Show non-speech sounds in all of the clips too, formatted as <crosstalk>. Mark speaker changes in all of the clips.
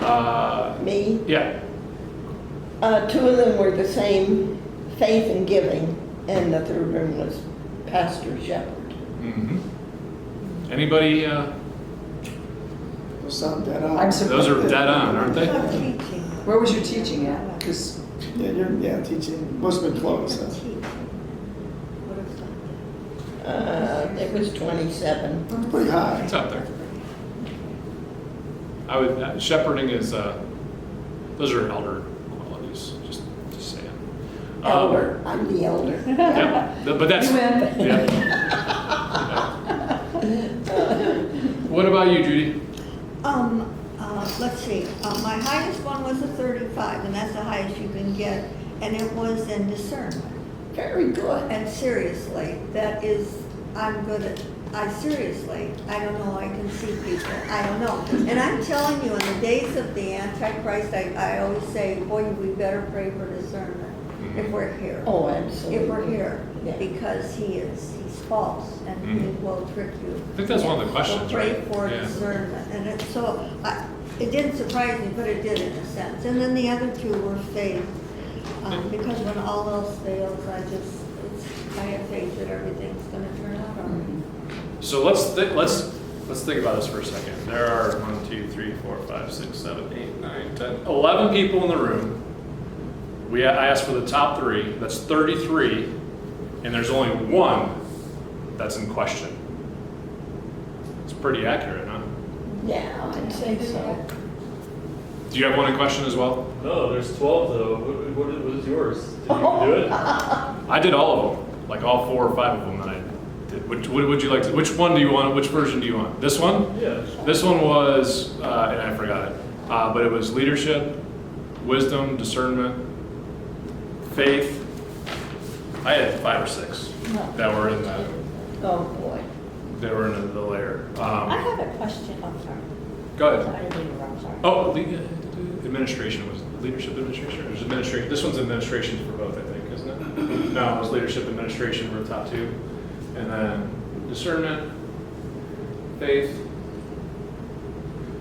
Speaker 1: Uh,
Speaker 2: me.
Speaker 1: yeah,
Speaker 2: Uh, two of them were the same, faith and giving, and the third one was pastor shepherd.
Speaker 1: mhm. Anybody, uh,
Speaker 3: There's some dead on.
Speaker 4: I'm sur-
Speaker 1: those are dead on, aren't they?
Speaker 3: <laughs>
Speaker 4: Where was your teaching at? Because
Speaker 3: Yeah, you're, yeah, teaching, must have been close, huh?
Speaker 2: Uh, it was twenty-seven.
Speaker 3: pretty high.
Speaker 1: It's up there. I would, uh, shepherding is, uh, those are elder qualities, just, just saying. Um,
Speaker 2: Elder, I'm the elder.
Speaker 5: <laughs>
Speaker 1: Yep, th- but that's.
Speaker 4: You win. <laughs>
Speaker 1: yeah. What about you, Judy?
Speaker 6: Um, uh, let's see, uh, my highest one was a thirty-five, and that's the highest you can get, and it was in discernment.
Speaker 2: Very good.
Speaker 6: And seriously, that is, I'm good at, I seriously, I don't know, I can see people, I don't know. And I'm telling you, in the days of the Antichrist, I, I always say, boy, we better pray for discernment if we're here.
Speaker 2: Oh, absolutely.
Speaker 6: If we're here,
Speaker 2: Yeah.
Speaker 6: because he is, he's false, and he
Speaker 1: Mhm.
Speaker 6: will trick you.
Speaker 1: I think that's one of the questions,
Speaker 6: So
Speaker 1: right?
Speaker 6: Pray for
Speaker 1: Yeah.
Speaker 6: discernment, and it, so, I, it didn't surprise me, but it did in a sense. And then the other two were faith, um, because when all else fails, I just, it's, I have faith that everything's gonna turn out all right.
Speaker 1: So let's, thi- let's, let's think about this for a second. There are one, two, three, four, five, six, seven, eight, nine, ten, eleven people in the room. We, I asked for the top three, that's thirty-three, and there's only one that's in question. It's pretty accurate, huh?
Speaker 2: Yeah, I'd say so.
Speaker 1: Do you have one in question as well?
Speaker 7: No, there's 12 though. What, what, what is yours? Did you do it?
Speaker 1: I did all of them, like all four or five of them that I did. Which, what would you like to, which one do you want, which version do you want? This one?
Speaker 7: Yeah.
Speaker 1: This one was, uh, and I forgot it, uh, but it was leadership, wisdom, discernment, faith. I had five or six that were in the,
Speaker 2: Oh, boy.
Speaker 1: that were in the layer.
Speaker 5: I
Speaker 1: Um,
Speaker 5: have a question, I'm sorry.
Speaker 1: go ahead.
Speaker 5: I didn't mean to interrupt, sorry.
Speaker 1: Oh, le- administration was leadership administration. Or was administration. This one's administration for both, I think, isn't it? No, it was leadership administration were the top two, and then discernment, faith,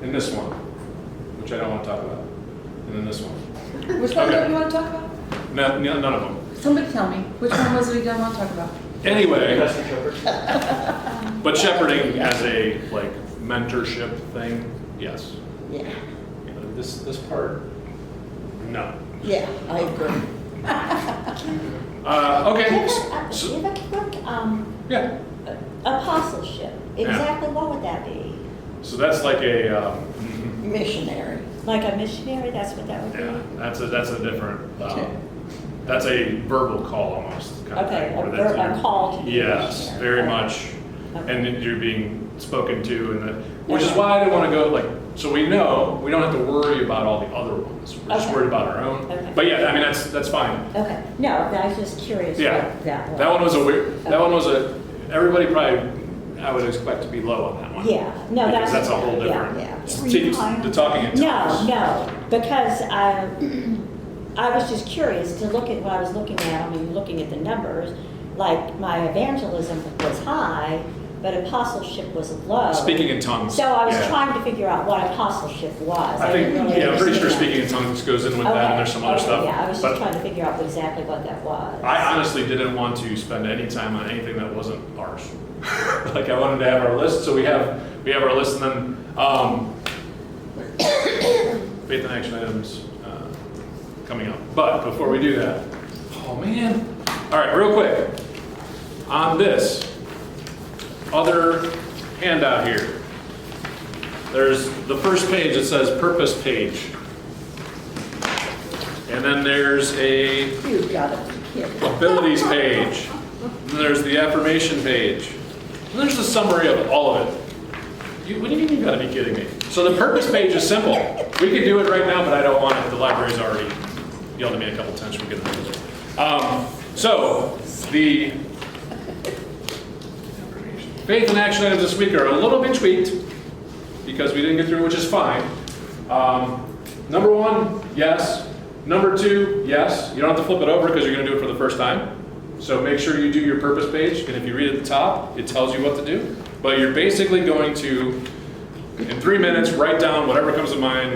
Speaker 1: and this one, which I don't want to talk about, and then this one.
Speaker 4: which one
Speaker 1: Okay.
Speaker 4: don't you want to talk about?
Speaker 1: No, no- none of them.
Speaker 4: Somebody tell me, which one was it you don't want to talk about?
Speaker 1: Anyway,
Speaker 7: Pastor Shepherd?
Speaker 1: but shepherding as a like mentorship thing, yes.
Speaker 2: Yeah,
Speaker 1: You know, This this part, no.
Speaker 2: yeah, I agree.
Speaker 1: Uh,
Speaker 5: Do you
Speaker 1: okay.
Speaker 5: have a-
Speaker 1: so-
Speaker 5: do you have a quick, um,
Speaker 1: yeah.
Speaker 5: apostleship?
Speaker 1: Yeah.
Speaker 5: Exactly what would that be?
Speaker 1: So that's like a, um, <laughs>
Speaker 2: Missionary.
Speaker 5: Like a missionary, that's what that would
Speaker 1: yeah,
Speaker 5: be?
Speaker 1: that's a, that's a different,
Speaker 2: Okay.
Speaker 1: um, that's a verbal call almost. kind of
Speaker 5: Okay,
Speaker 1: thing,
Speaker 5: a
Speaker 1: where
Speaker 5: ver-
Speaker 1: that's-
Speaker 5: a call to be a
Speaker 1: Yes,
Speaker 5: missionary.
Speaker 1: very
Speaker 5: Okay.
Speaker 1: much.
Speaker 5: Okay.
Speaker 1: And then you're being spoken to and that, which is
Speaker 5: Okay.
Speaker 1: why I didn't want to go like, so we know, we don't have to worry about all the other ones. We're just
Speaker 5: Okay.
Speaker 1: worried about our own.
Speaker 5: Okay.
Speaker 1: But yeah, I mean, that's, that's fine.
Speaker 5: Okay, no, I was just curious
Speaker 1: Yeah.
Speaker 5: what that was.
Speaker 1: That one was a weird, that
Speaker 5: Okay.
Speaker 1: one was a, everybody probably, I would expect to be low on that one.
Speaker 5: Yeah, no,
Speaker 1: Because
Speaker 5: that's.
Speaker 1: that's a whole
Speaker 5: yeah,
Speaker 1: different-
Speaker 5: yeah.
Speaker 1: See, The talking in tongues.
Speaker 5: No, no, because I, <clears throat> I was just curious to look at what I was looking at, I mean, looking at the numbers, like my evangelism was high, but apostleship was low.
Speaker 1: Speaking in tongues.
Speaker 5: So I was
Speaker 1: yeah.
Speaker 5: trying to figure out what apostleship was.
Speaker 1: I think,
Speaker 5: didn't really
Speaker 1: yeah, I'm pretty sure
Speaker 5: understand that.
Speaker 1: speaking in tongues goes in with that,
Speaker 5: Okay,
Speaker 1: and there's some other
Speaker 5: okay,
Speaker 1: stuff.
Speaker 5: Yeah, I was just
Speaker 1: But
Speaker 5: trying to figure out exactly what that was.
Speaker 1: I honestly didn't want to spend any time on anything that wasn't ours. <laughs> Like, I wanted to have our list, so we have, we have our list, and then, um, <coughs> faith and action items, uh, coming up. But before we do that, oh, man. All right, real quick, on this other handout here, there's the first page, it says purpose page. And then there's a
Speaker 2: You gotta be kidding.
Speaker 1: abilities page. And then there's the affirmation page. And there's the summary of all of it. You, what do you mean you gotta be kidding me? So the purpose page is simple. We could do it right now, but I don't want it. The library's already yelled at me a couple times for getting rid of it. Um, so the faith and action items this week are a little bit tweaked because we didn't get through, which is fine. Um, number one, yes. Number two, yes. You don't have to flip it over because you're going to do it for the first time. So make sure you do your purpose page, and if you read at the top, it tells you what to do. But you're basically going to, in three minutes, write down whatever comes to mind